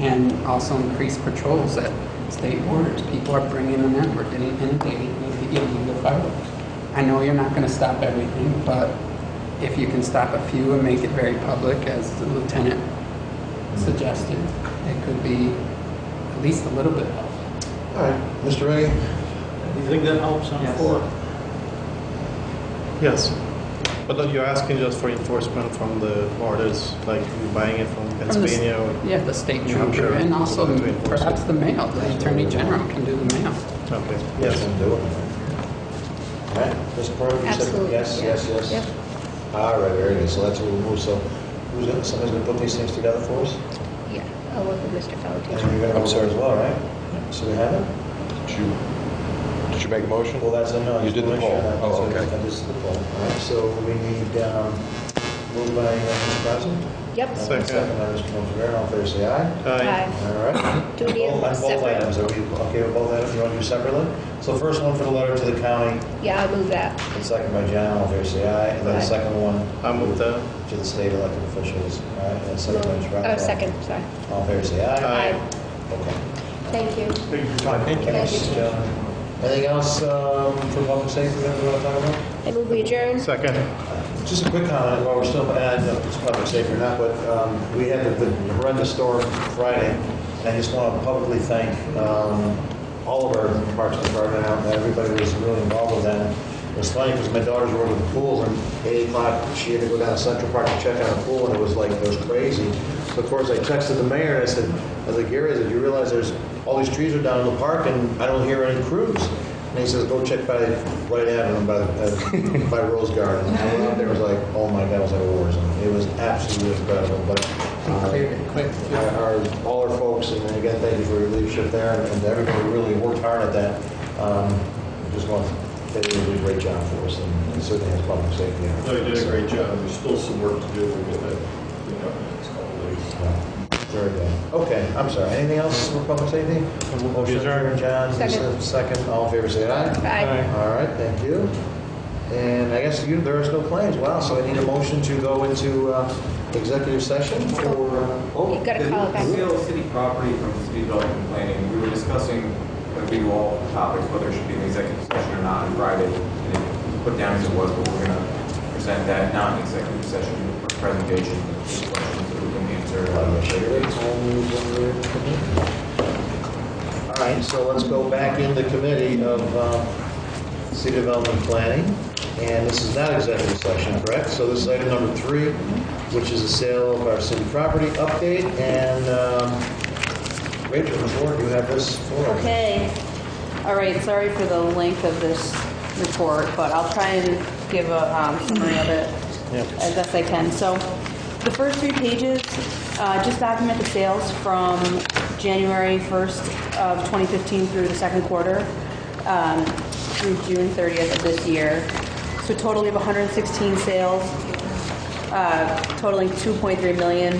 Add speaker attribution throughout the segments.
Speaker 1: and also increase patrols at state borders. People are bringing them in, we're getting inundated with the illegal fireworks. I know you're not gonna stop everything, but if you can stop a few and make it very public, as the lieutenant suggested, it could be at least a little bit helpful.
Speaker 2: All right, Mr. Reagan?
Speaker 3: Do you think that helps on
Speaker 1: Yes.
Speaker 3: four?
Speaker 4: Yes. But look, you're asking just for enforcement from the orders, like you're buying it from Pennsylvania. or-
Speaker 1: Yeah, the state
Speaker 4: Yeah, I'm
Speaker 1: trooper,
Speaker 4: sure.
Speaker 1: and also
Speaker 4: To enforce it.
Speaker 1: perhaps the mail, the attorney general can do the mail.
Speaker 4: Okay, yes.
Speaker 2: Can do it. All right, Mr. Perry, you said
Speaker 5: Absolutely,
Speaker 2: yes,
Speaker 5: yeah.
Speaker 2: yes, yes?
Speaker 5: Yep.
Speaker 2: All right, very good, so that's what we'll move, so who's gonna, somebody's gonna put these things together for us?
Speaker 5: Yeah, I'll work with Mr.
Speaker 2: And
Speaker 5: Fountain.
Speaker 2: you're gonna observe as well, right? So we have it?
Speaker 6: Did you, did you make a motion?
Speaker 2: Well, that's a no. I
Speaker 6: You
Speaker 2: just
Speaker 6: did the
Speaker 2: wanna make sure
Speaker 6: poll.
Speaker 2: that-
Speaker 6: Oh,
Speaker 2: so
Speaker 6: okay.
Speaker 2: That is the poll, all right, so we need, um, moved by uh, Mr. President?
Speaker 5: Yep.
Speaker 4: Second.
Speaker 2: Second by Mr. Montevero, all in favor, say aye.
Speaker 4: Aye.
Speaker 5: Aye.
Speaker 2: All right.
Speaker 5: Do we need them
Speaker 2: Both- Both
Speaker 5: separate?
Speaker 2: items, are we okay with both items? You want to do separately? So the first one for the letter to the county,
Speaker 5: Yeah, I'll move that.
Speaker 2: and second by John, all in favor, say aye. And then the
Speaker 5: Aye.
Speaker 2: second one
Speaker 4: I move that.
Speaker 2: to the state elected officials, all right? And then second by Mr.
Speaker 5: Oh,
Speaker 2: Rockwell.
Speaker 5: second, sorry.
Speaker 2: All in favor, say aye.
Speaker 4: Aye.
Speaker 2: Okay.
Speaker 5: Thank you.
Speaker 2: Thank you,
Speaker 5: Thank you.
Speaker 2: Mrs. Jones. Anything else um, for public safety that we want to talk about?
Speaker 5: I move we adjourn.
Speaker 4: Second.
Speaker 2: Just a quick comment, while we're still, and I don't know if it's public safety or not, but um, we had the the horrendous storm Friday, and I just want to publicly thank um, all of our parks department, out there, everybody who was really involved with that. It was funny, because my daughters were in the pool, and at 8 o'clock, she had to go down to Central Park to check on a pool, and it was like, it was crazy. So of course, I texted the mayor, and I said, I was like, Gary, I said, you realize there's, all these trees are down in the park, and I don't hear any crews. And he says, go check by Right Avenue by, the- by Rose Garden. And I went out there, it was like, oh my God, it was like a war zone. It was absolutely incredible, but. uh,
Speaker 1: Cleared it quick.
Speaker 2: our- Our, all our folks, and again, thank you for your leadership there, and everybody really worked hard at that. Um, Just want, they did a great job for us, and certainly has public safety. on it.
Speaker 7: Oh, They did a great job. There's still some work to do. We'll get that, you know, in the next couple of days.
Speaker 2: So, Very good. Okay, I'm sorry. Anything else for public safety? Motion adjourned, John,
Speaker 5: Second.
Speaker 2: second, all in favor, say aye.
Speaker 5: Aye.
Speaker 2: All right, thank you. And I guess you, there is no claims, wow, so I need a motion to go into uh, executive session for, uh,
Speaker 5: You
Speaker 2: oh,
Speaker 5: gotta call it back.
Speaker 8: The sale of city property from the city development planning, we were discussing, uh, we were all topics, whether it should be an executive session or not on Friday. And it put down as it was, but we're gonna present that non-executive session presentation, questions that we can answer uh, later.
Speaker 2: all right, so let's go back into committee of um, city development planning, and this is not executive session, correct? So this is item number three, which is the sale of our city property update, and um, Rachel, Ms. Ward, you have this for us.
Speaker 9: Okay. All right, sorry for the length of this report, but I'll try and give a um, summary of it as best I can. So the first three pages uh, just document the sales from January 1st of 2015 through the second quarter um, through June 30th of this year. So total, we have 116 sales uh, totaling 2.3 million,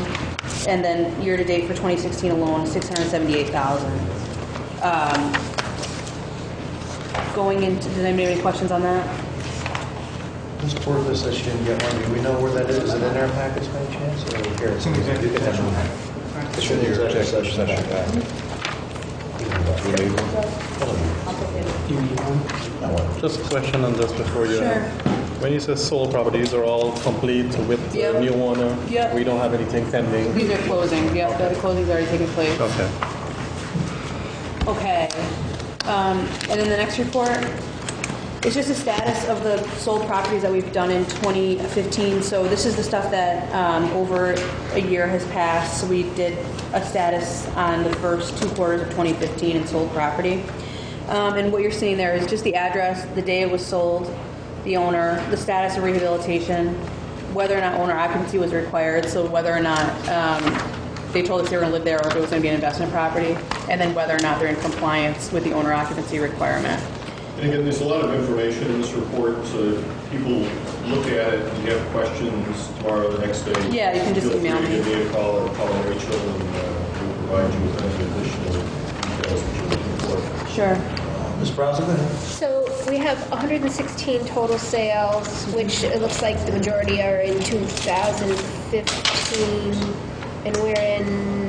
Speaker 9: and then year-to-date for 2016 alone, 678,000. Um, Going into, did anybody have any questions on that?
Speaker 2: This board list that she didn't get one, do we know where that is? Is it in our package by any chance, or here? It's in the executive session. It's in the executive session.
Speaker 6: You need one?
Speaker 1: You need one?
Speaker 2: That one.
Speaker 4: Just a question on this before you.
Speaker 9: Sure.
Speaker 4: When you say sold properties are all complete with the
Speaker 9: Yep.
Speaker 4: new owner?
Speaker 9: Yep.
Speaker 4: We don't have anything pending?
Speaker 9: These are closing, yeah, the closing's already taken place.
Speaker 4: Okay.
Speaker 9: Okay. Um, And then the next report, it's just the status of the sold properties that we've done in 2015. So this is the stuff that um, over a year has passed. So we did a status on the first two quarters of 2015 and sold property. Um, And what you're seeing there is just the address, the day it was sold, the owner, the status of rehabilitation, whether or not owner occupancy was required, so whether or not um, they told us they were going to live there or if it was going to be an investment property, and then whether or not they're in compliance with the owner occupancy requirement.
Speaker 7: And again, there's a lot of information in this report, so if people look at it and you have questions tomorrow, the next day.
Speaker 9: Yeah, you can just email me.
Speaker 7: Feel free to give me a call or call Rachel and uh, we'll provide you with any additional details that you're looking for.
Speaker 9: Sure.
Speaker 2: Ms. Brazel, go ahead.
Speaker 5: So we have 116 total sales, which it looks like the majority are in 2015, and we're in